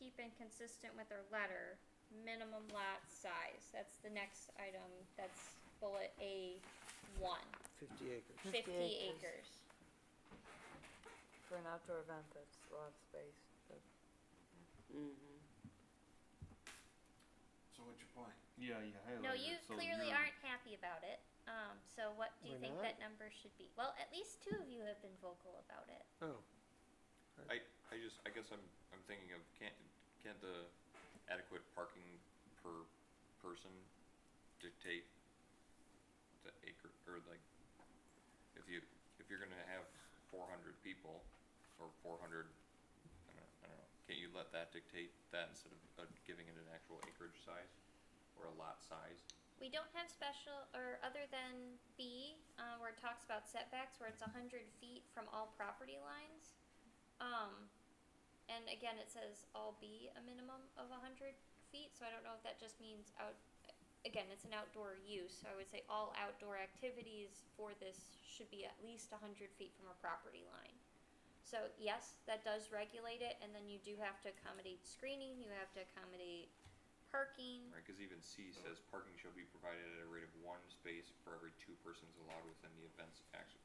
keep in consistent with their letter, minimum lot size, that's the next item, that's bullet A one. fifty acres. 50 Fifty acres. acres. for an outdoor event, that's a lot of space. but- Mm-hmm. So what's your point? Yeah, you highlighted. No, you it, so clearly you're- aren't happy about it, um, so what do you We're think not? that number should be? Well, at least two of you have been vocal about it. Oh, I just, I guess I'm, I'm thinking of, can't, can't the adequate parking per person dictate the acre, or like, if you, if you're gonna have four hundred people, or four hundred, I don't, I don't know, can't you let that dictate that instead of uh, giving it an actual acreage size, or a lot size? We don't have special, or other than B, uh, where it talks about setbacks, where it's a hundred feet from all property lines. Um, and again, it says all B, a minimum of a hundred feet, so I don't know if that just means out, again, it's an outdoor use, so I would say all outdoor activities for this should be at least a hundred feet from a property line. So yes, that does regulate it, and then you do have to accommodate screening, you have to accommodate parking. Right, cause even C says parking shall be provided at a rate of one space for every two persons allowed within the event's act-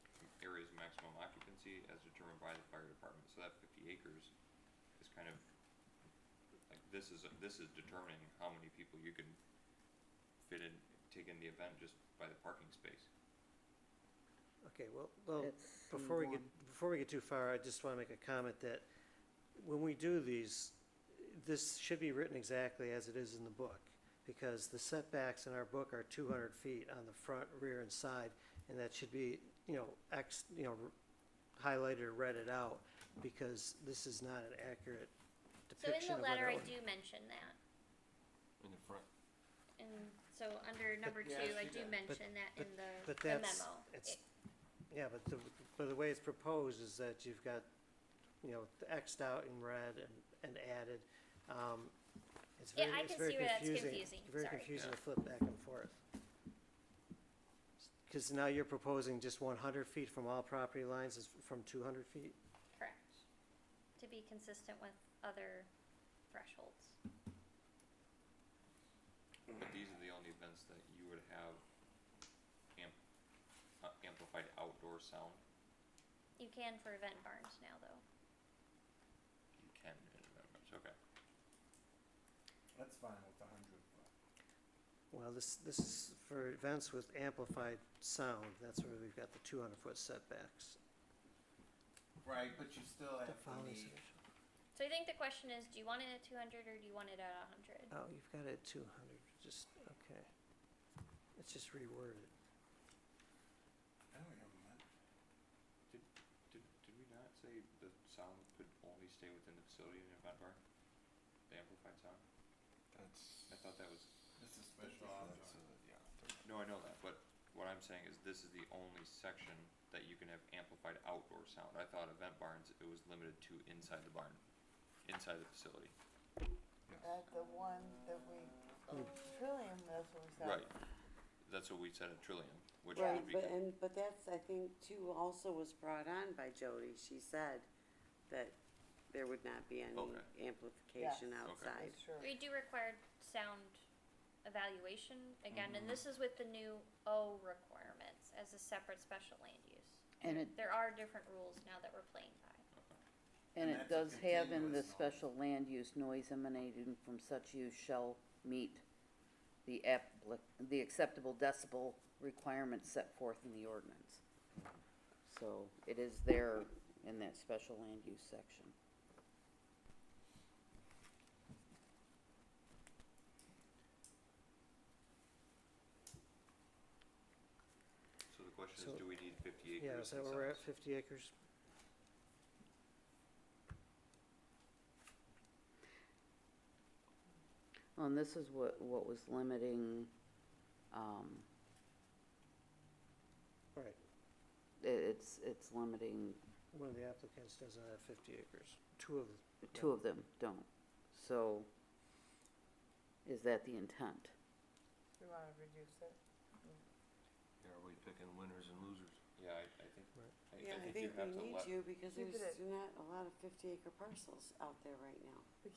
area's maximum occupancy as determined by the fire department, so that fifty acres is kind of, like, this is, this is determining how many people you can fit in, take in the event just by the parking space. okay, well, well, That's before we get, C1. before we get too far, I just wanna make a comment that when we do these, this should be written exactly as it is in the book, because the setbacks in our book are two hundred feet on the front, rear, and side, and that should be, you know, ex, you know, highlighted or redded out, because this is not an accurate So in depiction the of what letter, I our, do mention that, In the front. and so under number Yeah, I two, I see do that. mention that in the but the that's- memo. it's- It- yeah, but the, but the way it's proposed is that you've got, you know, the Xed out in red and, and added, um, it's Yeah, very, I it's can very see where that's confusing, confusing, very sorry. confusing to flip back and forth. Cause now you're proposing just one hundred feet from all property lines is from two hundred feet, Correct, to be consistent with other thresholds. But these are the only events that you would have amp- uh, amplified outdoor sound, You can for event barns now, though. you can in events, okay. That's fine with a hundred, but well, this, this is for events with amplified sound, that's where we've got the two hundred foot setbacks. Right, but you still That have to follows need, it. So I think the question is, do you want it at two hundred or do you want it at a hundred? Oh, you've got it at two hundred, just, okay, let's just reword it. I don't remember that. Did, did we not say the sound could only stay within the facility in an event bar? The amplified sound? That's. I thought that was, This is special outdoor. That's, uh, yeah. no, I know that, but what I'm saying is this is the only section that you can have amplified outdoor sound. I thought event barns, it was limited to inside the barn, inside the facility. Uh, the one that we, Trillium, that's what we said. Right. That's what we said at Trillium, which Right, would be but, good. and, but that's, I think, too, also was brought on by Jody, she said that there would not be any Okay. amplification Yes. Okay. outside. It's true. We do require sound evaluation again, and Mm-hmm. this is with the new O requirements as a separate special land use. And it, There are different rules now that we're playing by. and that's it a does have in the continuous noise. special land use noise emanating from such use shall meet the applic, the acceptable decibel requirements set forth in the ordinance. So it is there in that special land use section. So the question So- is, do we need fifty acres? Yeah, is that and where we're at, sounds? fifty acres? And this is what, what was limiting, um, Right, i- it's, it's limiting, one of the applicants doesn't have fifty acres, two of, the- two of them don't. So is that the intent? We wanna reduce it. Yeah, are we picking winners and losers? Yeah, I, I think, Right. I, I Yeah, think you have to we need let you, because Keep it there's at- not a lot of fifty acre parcels out there right now. We